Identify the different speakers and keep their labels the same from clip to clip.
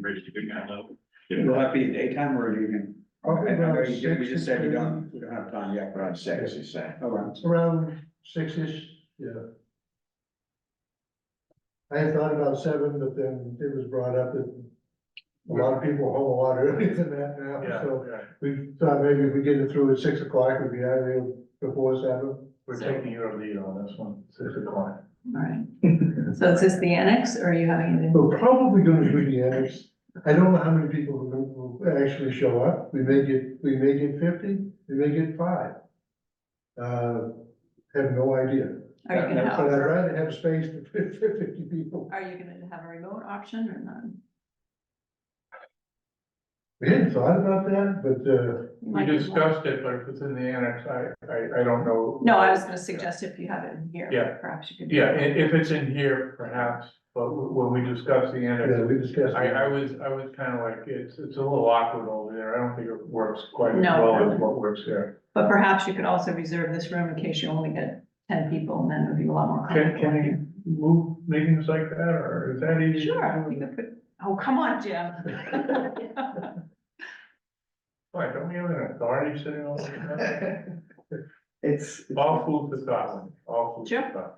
Speaker 1: bridge to Big Mountain Lake.
Speaker 2: Will that be daytime or evening?
Speaker 3: Probably
Speaker 2: I I know
Speaker 3: around
Speaker 2: you did- we just said
Speaker 3: 6:30.
Speaker 2: you don't, we don't have time yet, but I'm six, you say. Around.
Speaker 3: Around six-ish, yeah. I had thought about seven, but then it was brought up that a lot of people are home a lot earlier than that now, so
Speaker 4: yeah.
Speaker 3: we thought maybe if we get it through at six o'clock, we'd be out of there before seven.
Speaker 4: We're taking your lead on this one, six o'clock.
Speaker 5: All right. So is this the annex or are you having it in?
Speaker 3: We're probably gonna do the annex. I don't know how many people will, will actually show up. We may get, we may get fifty, we may get five. Uh, have no idea.
Speaker 5: Are you gonna
Speaker 3: But I'd
Speaker 5: have,
Speaker 3: rather have space for fif- for fifty people.
Speaker 5: are you gonna have a remote option or not?
Speaker 3: We hadn't thought about that, but, uh,
Speaker 4: We discussed it, but if it's in the annex, I, I, I don't know.
Speaker 5: No, I was gonna suggest if you have it in here.
Speaker 4: Yeah.
Speaker 5: Perhaps you could.
Speaker 4: Yeah, i- if it's in here, perhaps, but w- when we discuss the
Speaker 3: yeah,
Speaker 4: annex,
Speaker 3: we discussed.
Speaker 4: I,
Speaker 3: it.
Speaker 4: I was, I was kind of like, it's, it's a little awkward over there. I don't think it works quite as
Speaker 5: No,
Speaker 4: well as
Speaker 5: probably.
Speaker 4: what works here.
Speaker 5: But perhaps you could also reserve this room in case you only get ten people and then it would be a lot more
Speaker 4: Can,
Speaker 5: comfortable.
Speaker 4: can we move meetings like that, or is that easy? to
Speaker 5: Sure,
Speaker 4: do?
Speaker 5: you could put, oh, come on, Jim.
Speaker 4: Why, don't we have an authority sitting over there?
Speaker 6: It's,
Speaker 4: All food for thought, all food
Speaker 5: Sure.
Speaker 4: for thought.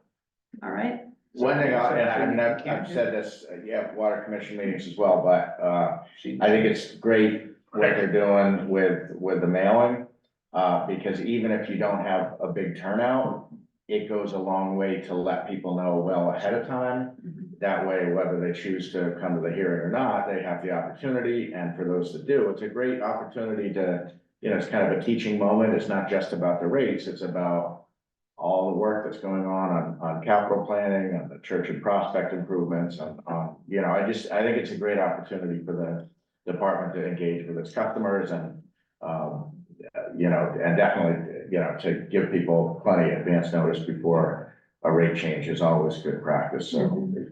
Speaker 5: All right,
Speaker 2: One thing, I- and I mean, I've, I've said this, uh, yeah, water commission meetings as well, but, uh, I think it's great what they're doing with, with the mailing. Uh, because even if you don't have a big turnout, it goes a long way to let people know well ahead of time. That way, whether they choose to come to the hearing or not, they have the opportunity, and for those that do, it's a great opportunity to, you know, it's kind of a teaching moment, it's not just about the rates, it's about all the work that's going on on, on capital planning, on the church and prospect improvements, on, on, you know, I just, I think it's a great opportunity for the department to engage with its customers and, um, you know, and definitely, you know, to give people plenty of advance notice before a rate change is always good practice,
Speaker 5: Mm-hmm.
Speaker 2: so.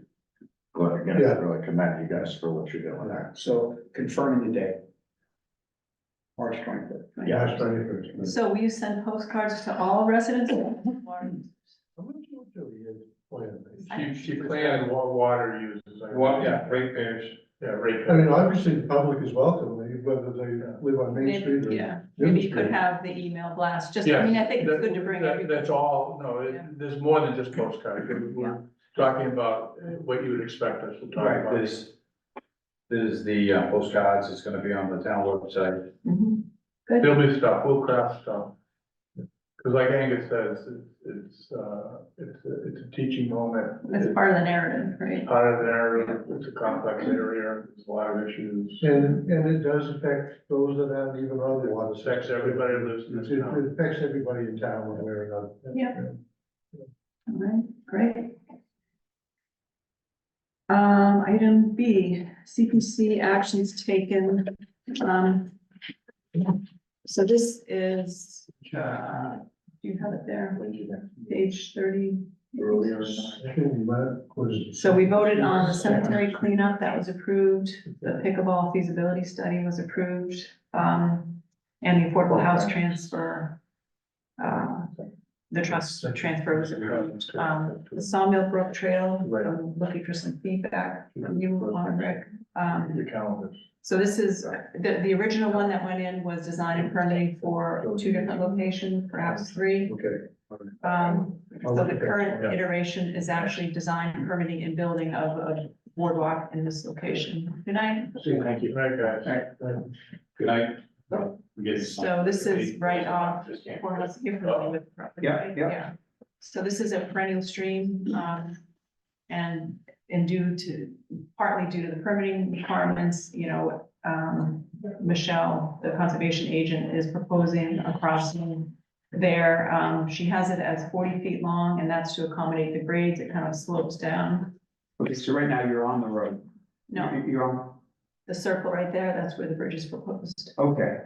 Speaker 2: Well, again, I really commend you guys for what you're doing there.
Speaker 6: so confirming the date. March twenty-fifth.
Speaker 2: Yeah.
Speaker 3: Last Friday first.
Speaker 5: so will you send postcards to all residents?
Speaker 3: How much water do we have planned?
Speaker 4: She, she planned what water uses. What, yeah, ratepayers. Yeah,
Speaker 3: I
Speaker 4: ratepayers.
Speaker 3: mean, obviously, the public is welcome, whether they live on Main Street
Speaker 5: Maybe,
Speaker 3: or.
Speaker 5: yeah,
Speaker 3: Main
Speaker 5: maybe you could
Speaker 3: Street.
Speaker 5: have the email blast, just, I mean, I think it's good to bring
Speaker 4: That-
Speaker 5: everybody.
Speaker 4: That's all, no, it-
Speaker 5: Yeah.
Speaker 4: there's more than just postcards, We're- we're talking about what you would expect us to talk
Speaker 1: Right,
Speaker 4: about.
Speaker 1: there's, there's the uh, postcards, it's gonna be on the town website.
Speaker 5: Mhm.
Speaker 4: There'll be stuff, we'll craft stuff. Cause like Angus says, it's, it's, uh, it's, a- it's a teaching moment.
Speaker 5: That's part of the narrative, right?
Speaker 4: It's Part of the narrative, it's a complex area, there's a lot of issues.
Speaker 3: And, and it does affect those that aren't even on the water.
Speaker 4: Affects everybody who lives in this
Speaker 3: It
Speaker 4: town.
Speaker 3: it affects everybody in town one way or another.
Speaker 5: Yeah. All right, great. Um, item B, CPC actions taken, um. So this is, uh, do you have it there? Page thirty.
Speaker 4: Earlier.
Speaker 3: I think that was-
Speaker 5: So we voted on the cemetery cleanup, that was approved, the pickleball feasibility study was approved, um, and the affordable house transfer. Uh, the trust transfer was approved, um, the Sawmill Brook Trail, I'm looking for some feedback from you, Lauren, Rick. Um,
Speaker 4: The calendars.
Speaker 5: so this is, uh, the, the original one that went in was designed and permitting for two different locations, perhaps three.
Speaker 3: Okay.
Speaker 5: Um, so the current iteration is actually design, permitting and building of a boardwalk in this location. Good night.
Speaker 4: Thank you. Right, guys.
Speaker 1: Good night. We get-
Speaker 5: So this is right off,
Speaker 1: Yeah.
Speaker 5: for us, you're familiar with the property,
Speaker 6: Oh, Yeah,
Speaker 5: right?
Speaker 6: yeah.
Speaker 5: So this is a perennial stream, um, and, and due to, partly due to the permitting requirements, you know, um, Michelle, the conservation agent, is proposing a crossing there. Um, she has it as forty feet long, and that's to accommodate the grades. It kind of slopes down.
Speaker 6: Okay, so right now you're on the road.
Speaker 5: No,
Speaker 6: You- You're on,
Speaker 5: the circle right there, that's where the bridge is proposed.
Speaker 6: okay,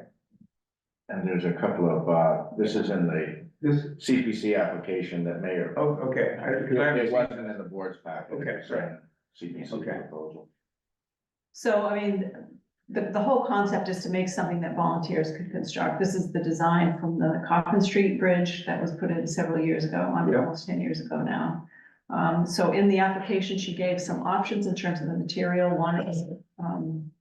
Speaker 2: And there's a couple of, uh, this is in the
Speaker 6: this,
Speaker 2: CPC application that may or.
Speaker 6: oh, okay. I- 'cause I haven't
Speaker 2: It
Speaker 6: seen-
Speaker 2: wasn't in the board's package.
Speaker 6: Okay,
Speaker 2: It's in
Speaker 6: right.
Speaker 2: CPC
Speaker 6: Okay.
Speaker 2: proposal.
Speaker 5: So, I mean, the, the whole concept is to make something that volunteers could construct. This is the design from the Coffin Street Bridge that was put in several years ago, I mean,
Speaker 6: Yeah.
Speaker 5: almost ten years ago now. Um, so in the application, she gave some options in terms of the material. One is, um,